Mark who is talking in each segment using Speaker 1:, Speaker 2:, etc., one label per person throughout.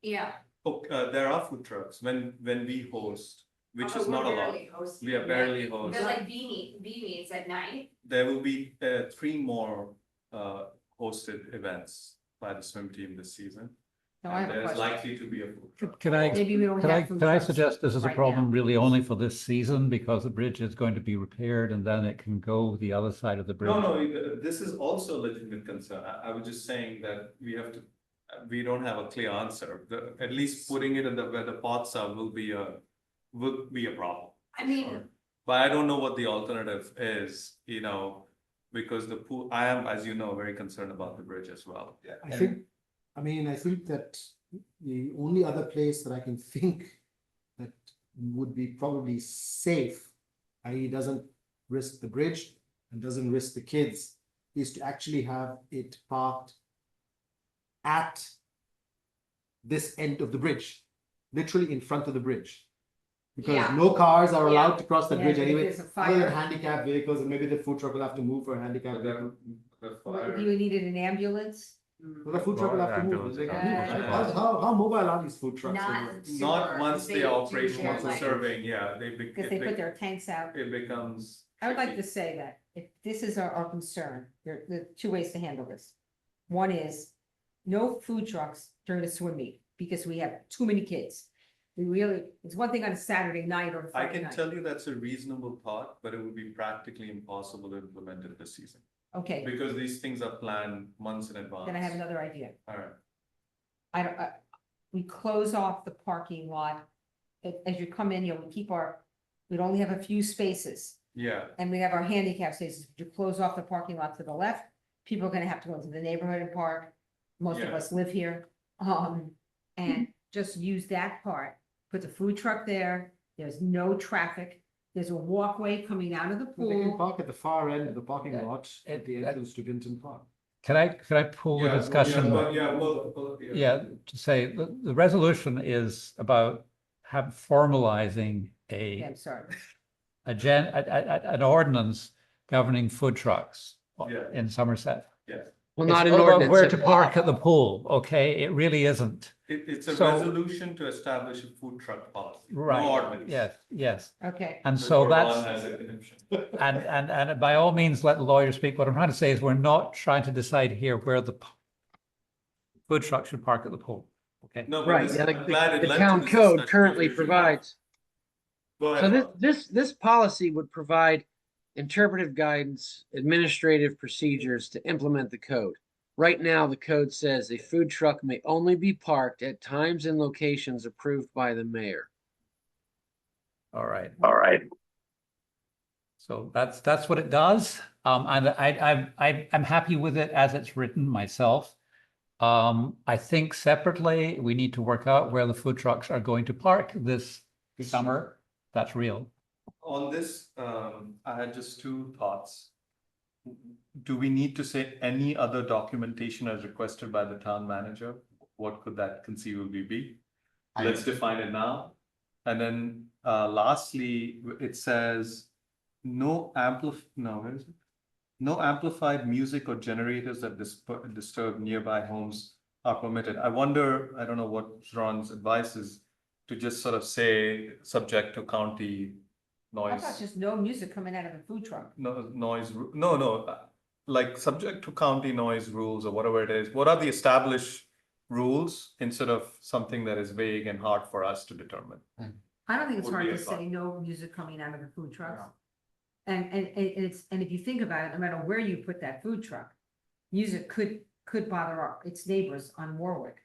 Speaker 1: Yeah.
Speaker 2: Oh, uh, there are food trucks when, when we host,
Speaker 1: Uh,
Speaker 2: which
Speaker 3: Oh,
Speaker 2: is not a lot. We are barely
Speaker 1: There's
Speaker 2: host.
Speaker 1: like beanie, beanies at night.
Speaker 2: There will be, uh, three more, uh, hosted events by the swim team this season.
Speaker 3: No, I have
Speaker 2: And
Speaker 3: a
Speaker 2: There's
Speaker 3: question.
Speaker 2: likely to be a food truck.
Speaker 4: Can I,
Speaker 3: Maybe we don't
Speaker 4: can I,
Speaker 3: have. food
Speaker 4: can I
Speaker 3: trucks
Speaker 4: suggest this is a
Speaker 3: right now.
Speaker 4: problem really only for this season because the bridge is going to be repaired and then it can go the other side of the bridge?
Speaker 2: No, no, uh, this is also a legitimate concern. I, I was just saying that we have to, uh, we don't have a clear answer. The, at least putting it in the, where the pots are will be a, will be a problem.
Speaker 1: I mean,
Speaker 2: But I don't know what the alternative is, you know, because the pool, I am, as you know, very concerned about the bridge as well. Yeah.
Speaker 5: I think, I mean, I think that the only other place that I can think that would be probably safe, i.e. doesn't risk the bridge and doesn't risk the kids, is to actually have it parked at this end of the bridge, literally in front of the bridge. Because
Speaker 1: Yeah.
Speaker 5: no cars are
Speaker 1: Yeah.
Speaker 5: allowed to cross the
Speaker 3: Yeah,
Speaker 5: bridge
Speaker 3: if
Speaker 5: anyway,
Speaker 3: there's a
Speaker 5: other
Speaker 3: fire.
Speaker 5: than handicapped vehicles, and maybe the food truck will have to move for a handicapped vehicle.
Speaker 2: The
Speaker 3: What, Do you needed an ambulance?
Speaker 1: mm.
Speaker 5: Well, the food truck will have to move.
Speaker 4: Ambulance.
Speaker 5: They can
Speaker 3: Yeah.
Speaker 5: move. How, how, how mobile are these food trucks?
Speaker 1: Not
Speaker 5: anyway?
Speaker 1: super
Speaker 2: Not once
Speaker 1: big
Speaker 2: they are operational
Speaker 1: to
Speaker 2: for
Speaker 1: like-
Speaker 2: serving, yeah, they be,
Speaker 3: Because
Speaker 2: it
Speaker 3: they put
Speaker 2: be,
Speaker 3: their tanks out.
Speaker 2: it becomes.
Speaker 3: I would like to
Speaker 2: tricky.
Speaker 3: say that if this is our, our concern, there, there are two ways to handle this. One is no food trucks during the swim meet because we have too many kids. We really, it's one thing on a Saturday night or a
Speaker 2: I
Speaker 3: Friday
Speaker 2: can
Speaker 3: night.
Speaker 2: tell you that's a reasonable thought, but it would be practically impossible to implement it this season.
Speaker 3: Okay,
Speaker 2: Because these things are planned months in advance.
Speaker 3: then I have another idea.
Speaker 2: Alright,
Speaker 3: I don't, I, we close off the parking lot. A- As you come in, you know, we keep our, we'd only have a few spaces
Speaker 2: yeah,
Speaker 3: and we have our handicap spaces. You close off the parking lot to the left. People are gonna have to go into the neighborhood and park. Most of
Speaker 2: Yeah.
Speaker 3: us live here. Um, and just use that part. Put the food truck there. There's no traffic. There's a walkway coming out of the
Speaker 5: They can
Speaker 3: pool.
Speaker 5: park at the far end of the parking
Speaker 4: Yeah.
Speaker 5: lot at the
Speaker 4: It-
Speaker 5: entrance to Vinton Park.
Speaker 4: Can I, can I pull the
Speaker 2: Yeah,
Speaker 4: discussion?
Speaker 2: Yeah, but- yeah, well, well,
Speaker 4: Yeah, to say, the, the resolution is about have formalizing
Speaker 3: Yeah,
Speaker 4: a,
Speaker 3: I'm sorry.
Speaker 4: a gen, a- a- a- an ordinance governing food trucks
Speaker 2: Yeah.
Speaker 4: in Somerset.
Speaker 6: Well,
Speaker 4: It's
Speaker 6: not an
Speaker 4: all about
Speaker 6: ordinance.
Speaker 4: Where
Speaker 6: it-
Speaker 4: to park at the pool, okay? It really isn't.
Speaker 2: It, it's a
Speaker 4: So-
Speaker 2: resolution to establish a food truck policy. no
Speaker 4: Right,
Speaker 2: ordinance.
Speaker 4: Yes, yes.
Speaker 3: Okay.
Speaker 4: And
Speaker 2: Because
Speaker 4: so
Speaker 2: Gordon
Speaker 4: that's.
Speaker 2: has an exemption.
Speaker 4: And, and, and by all means, let the lawyers speak. What I'm trying to say is we're not trying to decide here where the p- food truck should park at the pool. Okay,
Speaker 2: No, but
Speaker 6: Right,
Speaker 2: this-
Speaker 6: and
Speaker 2: I'm glad
Speaker 6: the-
Speaker 2: it
Speaker 6: the
Speaker 2: led to
Speaker 6: town
Speaker 2: this
Speaker 6: code
Speaker 2: discussion
Speaker 6: currently
Speaker 2: because we-
Speaker 6: provides,
Speaker 2: Go
Speaker 6: so
Speaker 2: ahead,
Speaker 6: this,
Speaker 2: Rob.
Speaker 6: this, this policy would provide interpretive guidance, administrative procedures to implement the code. Right now, the code says a food truck may only be parked at times and locations approved by the mayor.
Speaker 4: all right.
Speaker 7: All right.
Speaker 4: So that's, that's what it does. Um, and I, I, I, I'm happy with it as it's written myself. Um, I think separately, we need to work out where the food trucks are going to park this summer. That's real.
Speaker 2: On this, um, I had just two thoughts. Do we need to say any other documentation as requested by the town manager? What could that conceivably be? Let's define it now. And then, uh, lastly, it says, no amplif, no, where is it? No amplified music or generators that dis- disturb nearby homes are permitted. I wonder, I don't know what Ron's advice is to just sort of say, subject to county
Speaker 3: How
Speaker 2: noise.
Speaker 3: about just no music coming out of a food truck?
Speaker 2: No, noise, ru- no, no, uh, like subject to county noise rules or whatever it is, what are the established rules instead of something that is vague and hard for us to determine?
Speaker 3: I don't think it's
Speaker 2: would
Speaker 3: hard
Speaker 2: be
Speaker 3: to
Speaker 2: a thought.
Speaker 3: say no music coming out of the food trucks. And, and, and it's, and if you think about it, no matter where you put that food truck, music could, could bother our, its neighbors on Warwick.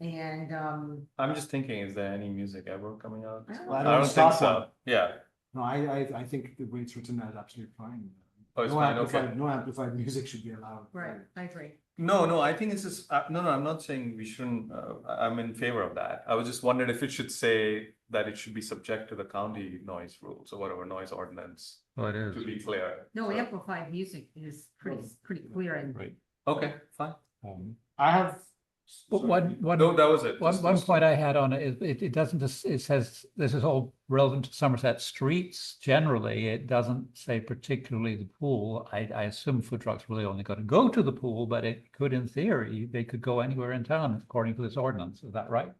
Speaker 3: And, um,
Speaker 2: I'm just thinking, is there any music ever coming out?
Speaker 3: I don't
Speaker 5: Well, I
Speaker 2: I
Speaker 5: don't
Speaker 2: don't think
Speaker 5: stop
Speaker 2: so, yeah,
Speaker 5: No, I, I, I think the way it's written that is absolutely fine.
Speaker 2: Oh, it's
Speaker 5: No
Speaker 2: fine, okay.
Speaker 5: amplified, no amplified music should be allowed.
Speaker 3: right, I agree.
Speaker 2: no, no, I think it's just, uh, no, no, I'm not saying we shouldn't, uh, I- I'm in favor of that. I was just wondering if it should say that it should be subject to the county noise rules or whatever noise ordinance,
Speaker 4: Well, Oh, it
Speaker 2: to be clear.
Speaker 3: No,
Speaker 2: So-
Speaker 3: amplified music is pretty, pretty clear and
Speaker 2: Okay, fine,
Speaker 5: Um, I have.
Speaker 4: One, one.
Speaker 2: no, that was it.
Speaker 4: One,
Speaker 2: Just
Speaker 4: one
Speaker 2: those two.
Speaker 4: point I had on it is, it, it doesn't, dis- it says, this is all relevant to Somerset streets generally, it doesn't say particularly the pool. I, I assume food trucks really only gotta go to the pool, but it could in theory, they could go anywhere in town according to this ordinance, is that right?